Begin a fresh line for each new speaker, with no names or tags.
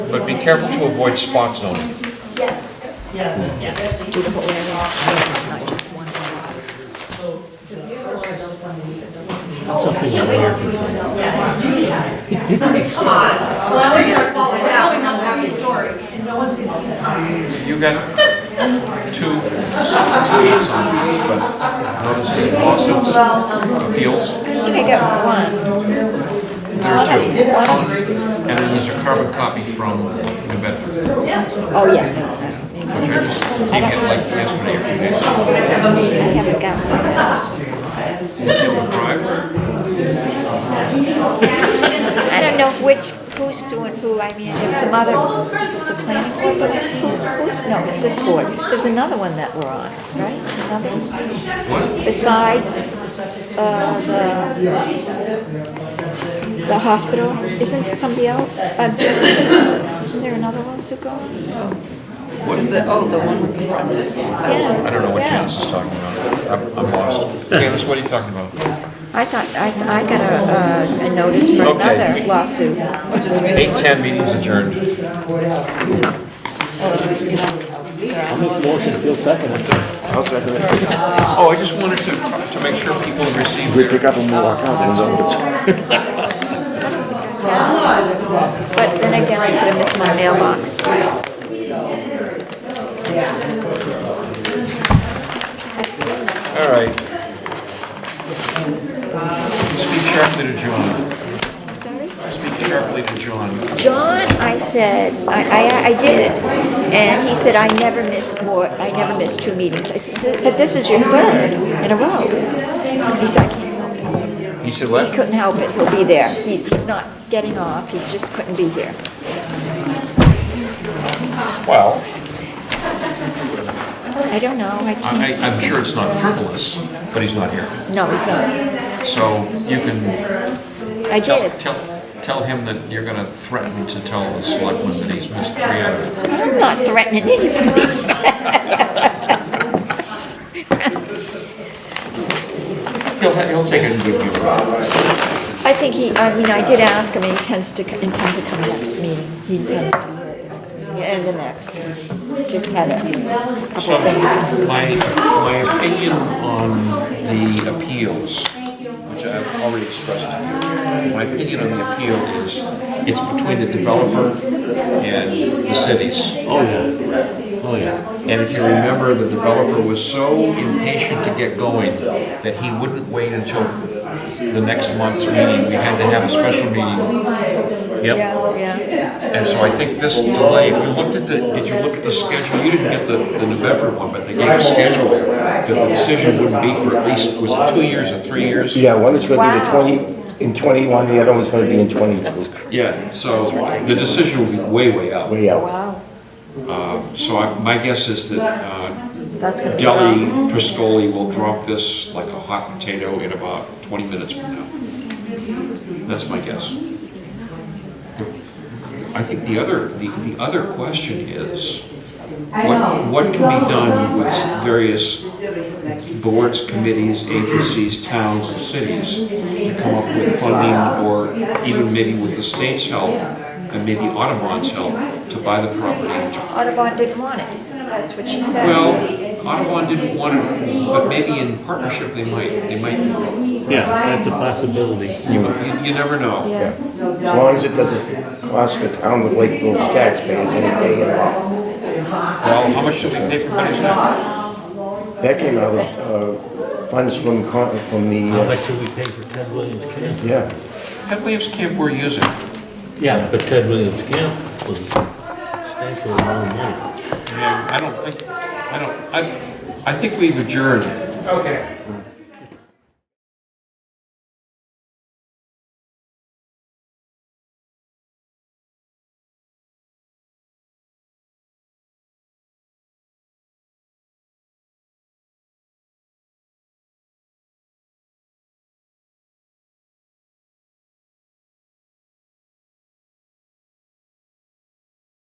But be careful to avoid spot zoning.
Yes.
Yeah, yes.
do the whole area, not just one area.
Something
Can't
like
wait to
that.
see what adults
Come on.
Well, we're gonna fall down, and not have stories, and no one's gonna see that.
You got two leads on this, but notices lawsuits, appeals,
I think I got one.
there are two. And then there's a carbon copy from New Bedford,
Oh, yes, I got
which I just came in like yesterday or two days ago.
I haven't got one.
They were bribed.
I don't know which, who's suing who, I mean, it's some other, is it the planning board, but who, who's, no, it's this board. There's another one that we're on, right? Another,
What?
besides, uh, the, the hospital, isn't it somebody else? Uh, Isn't there another lawsuit going?
Is the, oh, the one with the frontage?
I
Yeah,
don't know what
Yeah.
Janice is talking about. I'm- I'm lost. Janice, what are you talking about?
I thought, I, I got a, uh, a notice for
Okay.
another lawsuit.
Eight ten meetings adjourned.
Motion, feel second.
I'll second it.
Oh, I just wanted to, to make sure people received
We
their.
pick up and
Oh,
we'll walk out, and zone
But then again, I could have missed my mailbox.
All right. Speak sharply to John.
I'm sorry?
Speak sharply to John.
John, I said, I, I, I did. And he said, I never missed more, I never missed two meetings. I said, but this is your third in a row. He said, I can't help it.
He said
He
what?
couldn't help it, he'll be there. He's, he's not getting off, he just couldn't be here.
Well,
I don't know, I can't,
I, I- I'm sure it's not frivolous, but he's not here.
no, he's not.
So you can
I
tell,
did.
tell, tell him that you're gonna threaten to tell the selectmen that he's missed three out of.
I'm not threatening anybody.
He'll, ha- he'll take it and give you.
I think he, I mean, I did ask him, and he tends to, intend to come next meeting. He tends to be here at the next meeting, and the next. Just had a couple
So
of things.
my, my opinion on the appeals, which I've already expressed to you, my opinion on the appeal is it's between the developer and the cities.
Oh, yeah. Oh, yeah.
And if you remember, the developer was so impatient to get going that he wouldn't wait until the next month's meeting. We had to have a special meeting.
Yeah, yeah.
And so I think this delay, if you looked at the, did you look at the schedule? You didn't get the, the New Bedford one, but they gave a schedule there. that The decision wouldn't be for at least, was it two years or three years?
Yeah, one is gonna be
Wow.
the twenty, in twenty-one, the other one's gonna be in twenty-two.
Yeah, so the decision would be way, way out.
Way out.
Wow,
Um, So I, my guess is that, uh,
that's gonna be
Deli Priscoli will drop this like a hot potato in about 20 minutes from now. That's my guess. I think the other, the, the other question is, what, what can be done with various boards, committees, agencies, towns, and cities to come up with funding or even maybe with the state's help and maybe Audubon's help to buy the property and to
Audubon didn't want it, that's what she said.
well, Audubon didn't want it, but maybe in partnership they might, they might, you,
Yeah, that's a possibility.
you never know.
Yeah,
As long as it doesn't cost the town of Lakeville's taxpayers any day at all.
Well, how much did we pay for Betty's now?
That came out of, uh, funds from, con- from the,
How
uh,
much did we pay for Ted Williams Camp?
yeah.
Ted Williams Camp we're using,
Yeah, but Ted Williams Camp was substantial amount of money.
I mean, I don't think, I don't, I, I think we've adjourned.
Okay.